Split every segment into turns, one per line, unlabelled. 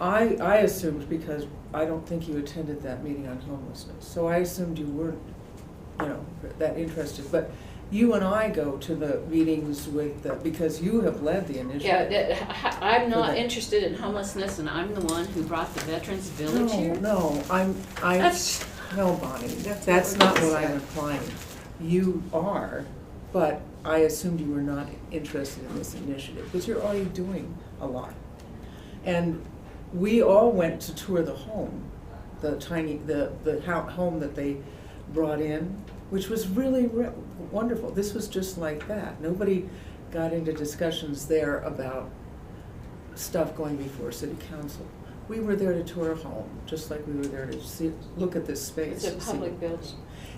I, I assumed, because I don't think you attended that meeting on homelessness, so I assumed you weren't, you know, that interested. But you and I go to the meetings with, the- because you have led the initiative.
Yeah, that- I'm not
Okay.
interested in homelessness, and I'm the one who brought the Veterans Village
No,
here.
no, I'm, I,
That's,
no, Bonnie, that's,
not
that's
what
not
you
what I'm
said.
implying. You are, but I assumed you were not interested in this initiative, because you're already doing a lot. And we all went to tour the home, the tiny, the, the ho- home that they brought in, which was really re- wonderful. This was just like that. Nobody got into discussions there about stuff going before city council. We were there to tour a home, just like we were there to see, look at this space.
it's a
and see-
public building.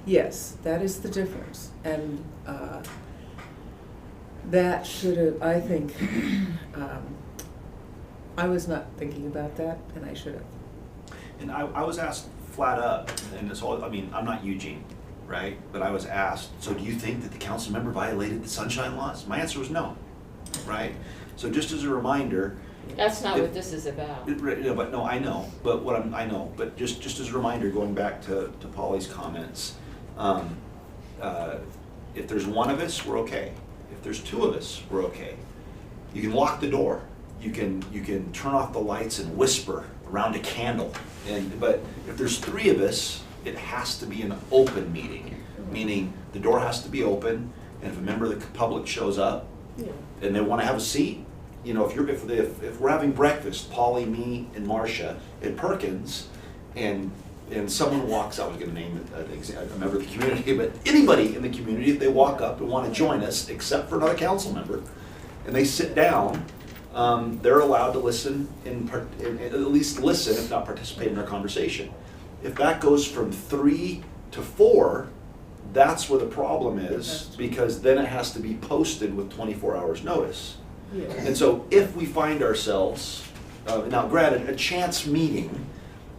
Yes, that is the difference, and uh, that should have, I think, um, I was not thinking about that, and I should have.
And I, I was asked flat up, and this whole, I mean, I'm not Eugene, right? But I was asked, so do you think that the council member violated the sunshine laws? My answer was no, right? So just as a reminder,
That's not
If-
what this is about.
it- right, no, but no, I know, but what I'm, I know, but just, just as a reminder, going back to, to Polly's comments, um, uh, if there's one of us, we're okay. If there's two of us, we're okay. You can lock the door. You can, you can turn off the lights and whisper around a candle. And, but if there's three of us, it has to be an open meeting, meaning the door has to be open, and if a member of the public shows up, and they want to have a seat, you know, if you're, if, if, if we're having breakfast, Polly, me, and Marcia at Perkins, and, and someone walks, I was gonna name it, an exa- a member of the community, but anybody in the community, if they walk up and want to join us, except for another council member, and they sit down, um, they're allowed to listen and, par- and- and at least listen, if not participate in our conversation. If that goes from three to four, that's where the problem is, because then it has to be posted with twenty-four hours' notice. And so if we find ourselves, uh, now granted, a chance meeting,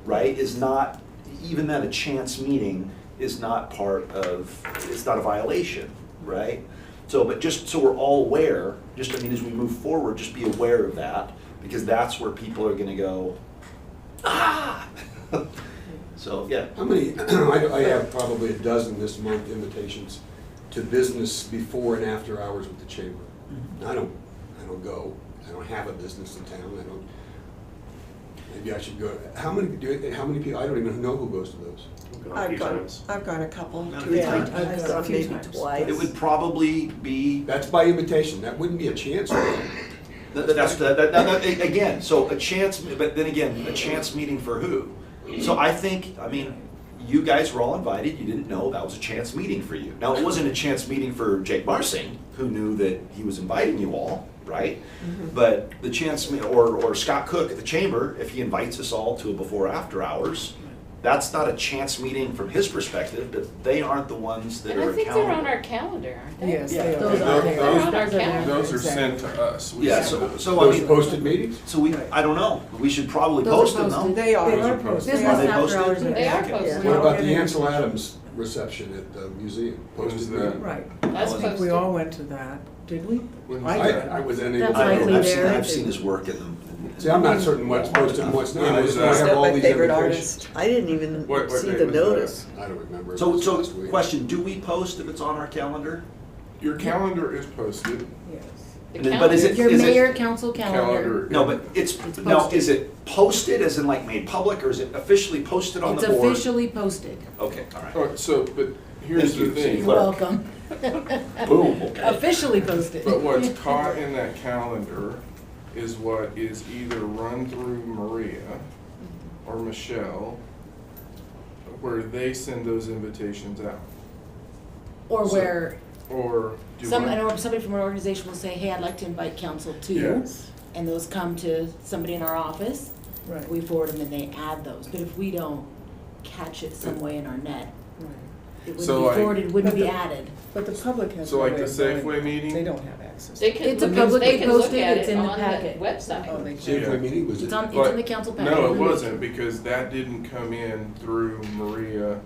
right, is not, even then, a chance meeting is not part of, it's not a violation, right? So, but just so we're all aware, just, I mean, as we move forward, just be aware of that, because that's where people are gonna go, ah! So, yeah.
How many, I I have probably a dozen this month invitations to business before and after hours with the chamber. I don't, I don't go, I don't have a business in town, I don't, maybe I should go. How many, do, how many people, I don't even know who goes to those.
I've
few
gone,
times.
I've gone a couple, two or
Not
three
a few times.
I've
times,
gone a few
maybe
times.
twice.
It would probably be
That's by invitation, that wouldn't be a chance.
That- that- That's, that, that, that- that- again, so a chance, but then again, a chance meeting for who? So I think, I mean, you guys were all invited, you didn't know that was a chance meeting for you. Now, it wasn't a chance meeting for Jake Marsing, who knew that he was inviting you all, right?
Mm-hmm.
But the chance, me- or, or Scott Cook at the Chamber, if he invites us all to a before, after hours, that's not a chance meeting from his perspective, but they aren't the ones that
And
are
I
accountable.
think they're on our calendar, aren't they?
Yes,
Yeah.
they are.
Those are there.
They're on our calendar.
Those are sent to us. We
Yeah,
send
so,
those.
so I
Those
mean.
posted meetings?
So we, I don't know, we should probably
Those
post
are
them though.
posted.
They are.
They are
They
posted.
Are
Business
they
after
posted?
hours.
They are
Okay.
posted.
What about the Ansel Adams reception at the museum? Posted
When's that?
meeting?
Right,
That's
I think we all went to that, did we?
When-
I
I,
did.
I was unable.
That's
to-
I
likely
know, I've seen,
there.
I've seen his work in them.
See, I'm not certain what's posted and what's not, I just
Who's
I have
Not
all
my
these
favorite
invitations.
artist. I didn't even
What- what
see
day
the
was that?
notice.
I don't remember.
So,
It
so,
was last week.
question, do we post if it's on our calendar?
Your calendar is posted.
Yes.
The
But is it,
Your
is
mayor
it,
council
Calendar.
calendar.
no, but it's,
It's
no,
posted.
is it posted as in like made public or is it officially posted on
It's
the board?
officially posted.
Okay, all right.
Oh, so, but
Thank
here's the
you,
thing.
You're
Clerk.
welcome.
Boom, okay.
Officially posted.
But what's caught in that calendar is what is either run through Maria or Michelle, where they send those invitations out.
Or where
Or do
some,
I-
an or- somebody from an organization will say, hey, I'd like to invite council to.
Yes.
And those come to somebody in our office.
Right,
We forward them and they add those. But if we don't catch it some way in our net,
right.
it
So
wouldn't
I-
be forwarded, wouldn't
But
be
the-
added.
But the public has.
So
no
like
way
the
of knowing
Safeway
that.
meeting?
They don't have access.
They can,
It's a
look- they
publicly
can look
posted,
at
it's
it
in the
on the
packet.
Oh,
website.
they
See if
can.
my meeting was
It's
it?
on, it's
But-
in the council packet.
No, it wasn't, because that didn't come in through Maria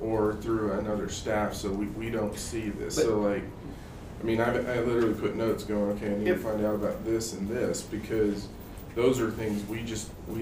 or through another staff, so we, we don't see this, so like, I mean, I, I literally put notes going, okay, I need to
Yep.
find out about this and this, because those are things we just, we